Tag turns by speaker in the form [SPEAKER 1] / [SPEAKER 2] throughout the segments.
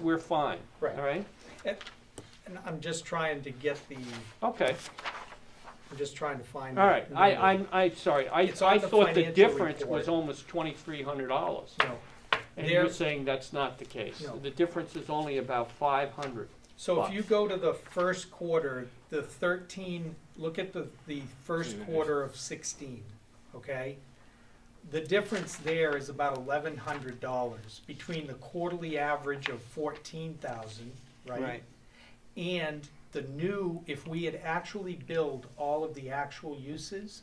[SPEAKER 1] we're fine.
[SPEAKER 2] Right.
[SPEAKER 1] All right?
[SPEAKER 2] And I'm just trying to get the, I'm
[SPEAKER 1] Okay,
[SPEAKER 2] just trying to find.
[SPEAKER 1] all
[SPEAKER 2] the
[SPEAKER 1] right. I,
[SPEAKER 2] number.
[SPEAKER 1] I'm, I'm sorry. I,
[SPEAKER 2] It's on
[SPEAKER 1] I
[SPEAKER 2] the
[SPEAKER 1] thought the
[SPEAKER 2] financial
[SPEAKER 1] difference
[SPEAKER 2] report.
[SPEAKER 1] was almost twenty-three hundred dollars.
[SPEAKER 2] No.
[SPEAKER 1] And you're
[SPEAKER 2] There-
[SPEAKER 1] saying that's not the case.
[SPEAKER 2] No.
[SPEAKER 1] The difference is only about five hundred.
[SPEAKER 2] So if you go to the first quarter, the thirteen, look at the, the first quarter of sixteen, okay? The difference there is about eleven hundred dollars between the quarterly average of fourteen thousand, right? And the new, if we had actually billed all of the actual uses,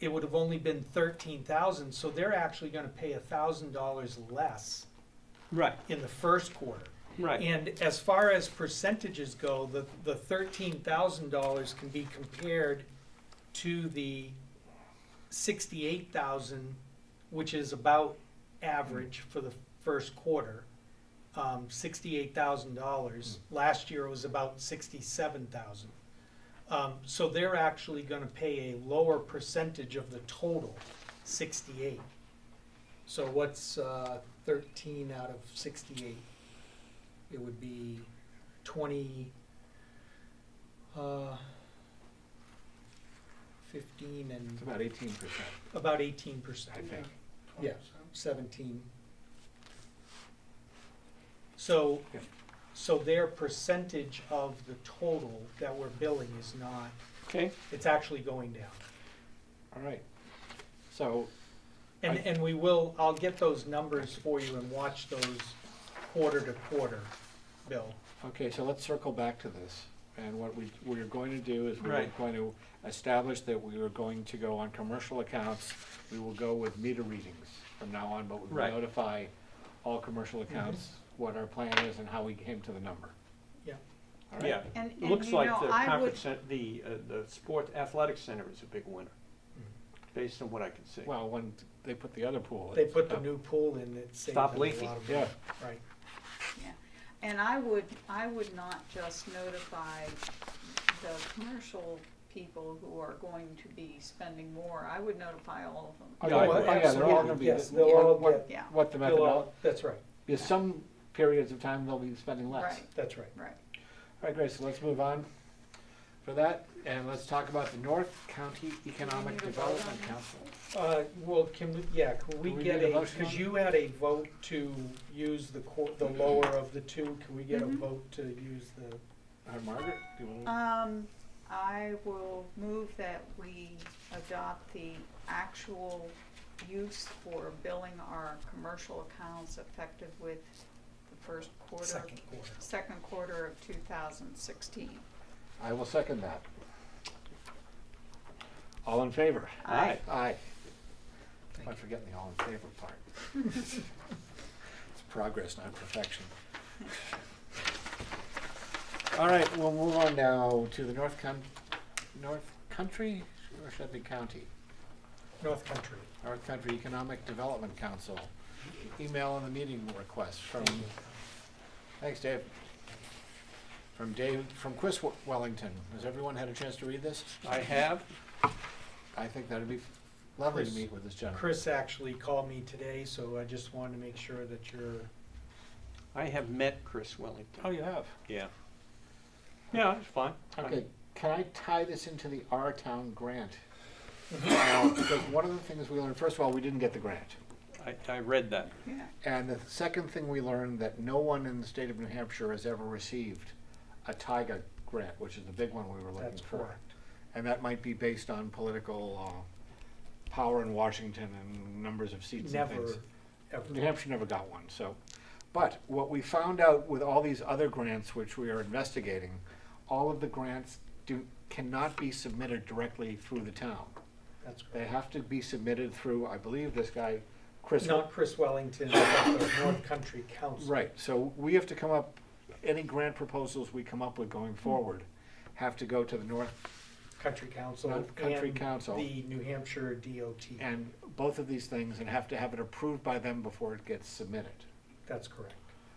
[SPEAKER 2] it would have only been thirteen thousand, so they're actually gonna pay a thousand dollars less
[SPEAKER 1] Right,
[SPEAKER 2] in the first quarter.
[SPEAKER 1] right.
[SPEAKER 2] And as far as percentages go, the, the thirteen thousand dollars can be compared to the sixty-eight thousand, which is about average for the first quarter. Um, sixty-eight thousand dollars, last year it was about sixty-seven thousand. Um, so they're actually gonna pay a lower percentage of the total, sixty-eight. So what's, uh, thirteen out of sixty-eight? it would be twenty, uh, fifteen and
[SPEAKER 3] It's about eighteen percent,
[SPEAKER 2] about eighteen
[SPEAKER 3] I
[SPEAKER 2] percent,
[SPEAKER 3] think.
[SPEAKER 2] Yeah. seventeen. So,
[SPEAKER 3] Yeah.
[SPEAKER 2] so their percentage of the total that we're billing is not,
[SPEAKER 1] Okay,
[SPEAKER 2] it's actually going down.
[SPEAKER 3] All right. So,
[SPEAKER 2] And,
[SPEAKER 3] I-
[SPEAKER 2] and we will, I'll get those numbers for you and watch those quarter to quarter, Bill.
[SPEAKER 3] okay, so let's circle back to this. And what we, we're going to do is we're
[SPEAKER 1] Right.
[SPEAKER 3] going to establish that we are going to go on commercial accounts. We will go with meter readings from now on, but we will
[SPEAKER 1] Right.
[SPEAKER 3] notify all commercial
[SPEAKER 2] Mm-hmm.
[SPEAKER 3] accounts what our plan is and how we came to the number.
[SPEAKER 2] Yeah.
[SPEAKER 3] All right?
[SPEAKER 1] yeah.
[SPEAKER 4] And, and
[SPEAKER 1] Looks
[SPEAKER 4] you
[SPEAKER 1] like
[SPEAKER 4] know,
[SPEAKER 1] the
[SPEAKER 4] I would,
[SPEAKER 1] conference, cen- the, uh, the sport athletic center is a big winner,
[SPEAKER 2] Mm.
[SPEAKER 1] based on what I can see.
[SPEAKER 3] Well, when they put the other pool.
[SPEAKER 2] They
[SPEAKER 3] it's
[SPEAKER 2] put the
[SPEAKER 3] up.
[SPEAKER 2] new pool in, it saved them
[SPEAKER 1] Stop
[SPEAKER 2] a lot
[SPEAKER 1] leaking.
[SPEAKER 2] of money,
[SPEAKER 3] Yeah,
[SPEAKER 2] right.
[SPEAKER 4] yeah. and I would, I would not just notify the commercial people who are going to be spending more, I would notify all of them.
[SPEAKER 3] Oh,
[SPEAKER 1] Yeah,
[SPEAKER 3] yeah,
[SPEAKER 1] I
[SPEAKER 3] oh,
[SPEAKER 1] agree.
[SPEAKER 3] yeah, they're all gonna be,
[SPEAKER 2] Yes, they'll all
[SPEAKER 3] what-
[SPEAKER 2] get-
[SPEAKER 4] Yeah,
[SPEAKER 3] what the
[SPEAKER 2] Bill,
[SPEAKER 3] methodology,
[SPEAKER 2] uh, That's right,
[SPEAKER 3] There's some periods of time they'll be spending less.
[SPEAKER 4] right,
[SPEAKER 2] that's right.
[SPEAKER 4] right.
[SPEAKER 3] All right, Grace, so let's move on for that, and let's talk about the North County Economic
[SPEAKER 4] Do we need to vote on
[SPEAKER 3] Development
[SPEAKER 4] this?
[SPEAKER 3] Council.
[SPEAKER 2] Uh, well, can we, yeah, can we
[SPEAKER 3] Do we
[SPEAKER 2] get
[SPEAKER 3] need a
[SPEAKER 2] a,
[SPEAKER 3] motion
[SPEAKER 2] because
[SPEAKER 3] on it? Mm-hmm.
[SPEAKER 2] you had a vote to use the cor, the lower of the two, can we get a
[SPEAKER 4] Mhm.
[SPEAKER 2] vote to use the,
[SPEAKER 3] Uh, Margaret, do you want
[SPEAKER 4] Um, I will move that we adopt the actual use for billing our commercial accounts effective with the first quarter,
[SPEAKER 2] second quarter?
[SPEAKER 4] second quarter of two thousand sixteen.
[SPEAKER 3] to? I will second that. All in favor?
[SPEAKER 1] Aye.
[SPEAKER 3] Aye.
[SPEAKER 2] Thank
[SPEAKER 3] I'm
[SPEAKER 2] you.
[SPEAKER 3] forgetting the all in favor part. It's progress, not perfection. All right, we'll move on now to the North Coun, North Country, or should it be county?
[SPEAKER 2] North Country.
[SPEAKER 3] North Country Economic Development Council. Email and the meeting request from, thanks Dave. From Dave, from Chris Wel- Wellington. Has everyone had a chance to read this?
[SPEAKER 1] I have,
[SPEAKER 3] I think that'd be lovely to
[SPEAKER 2] Chris-
[SPEAKER 3] meet with this gentleman.
[SPEAKER 2] Chris actually called me today, so I just wanted to make sure that you're,
[SPEAKER 1] I have met Chris Wellington.
[SPEAKER 3] Oh,
[SPEAKER 2] Oh,
[SPEAKER 3] you have?
[SPEAKER 1] Yeah. Yeah, it's fine. I
[SPEAKER 3] Okay,
[SPEAKER 1] mean,
[SPEAKER 3] can I tie this into the Our Town grant? Now, Because one of the things we learned, first of all, we didn't get the grant.
[SPEAKER 1] I, I read that.
[SPEAKER 4] Yeah,
[SPEAKER 3] And the second thing we learned that no one in the state of New Hampshire has ever received a TIGA grant, which is the big one we were looking
[SPEAKER 2] that's
[SPEAKER 3] for.
[SPEAKER 2] correct.
[SPEAKER 3] And that might be based on political uh, power in Washington and numbers of seats and
[SPEAKER 2] Never,
[SPEAKER 3] things. New
[SPEAKER 2] ever.
[SPEAKER 3] Hampshire never got one, so. But what we found out with all these other grants which we are investigating, all of the grants do, cannot be submitted directly through the town.
[SPEAKER 2] That's correct.
[SPEAKER 3] They have to be submitted through, I believe, this guy, Chris.
[SPEAKER 2] Not Chris Wellington, but the North Country Council.
[SPEAKER 3] Right, so we have to come up, any grant proposals we come up with going forward have to go to the North,
[SPEAKER 2] Country Council
[SPEAKER 3] North Country
[SPEAKER 2] and
[SPEAKER 3] Council.
[SPEAKER 2] the New Hampshire DOT.
[SPEAKER 3] and both of these things, and have to have it approved by them before it gets submitted.
[SPEAKER 2] That's correct.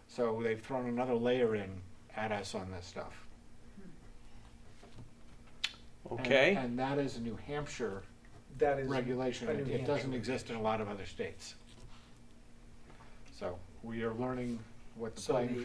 [SPEAKER 3] So they've thrown another layer in at us on this stuff. And-
[SPEAKER 1] Okay,
[SPEAKER 3] And that is a New Hampshire
[SPEAKER 2] That is.
[SPEAKER 3] regulation,
[SPEAKER 2] a New
[SPEAKER 3] It- it doesn't
[SPEAKER 2] Hampshire.
[SPEAKER 3] exist in a lot of other states. So we are learning what the
[SPEAKER 2] So
[SPEAKER 3] playing
[SPEAKER 2] the-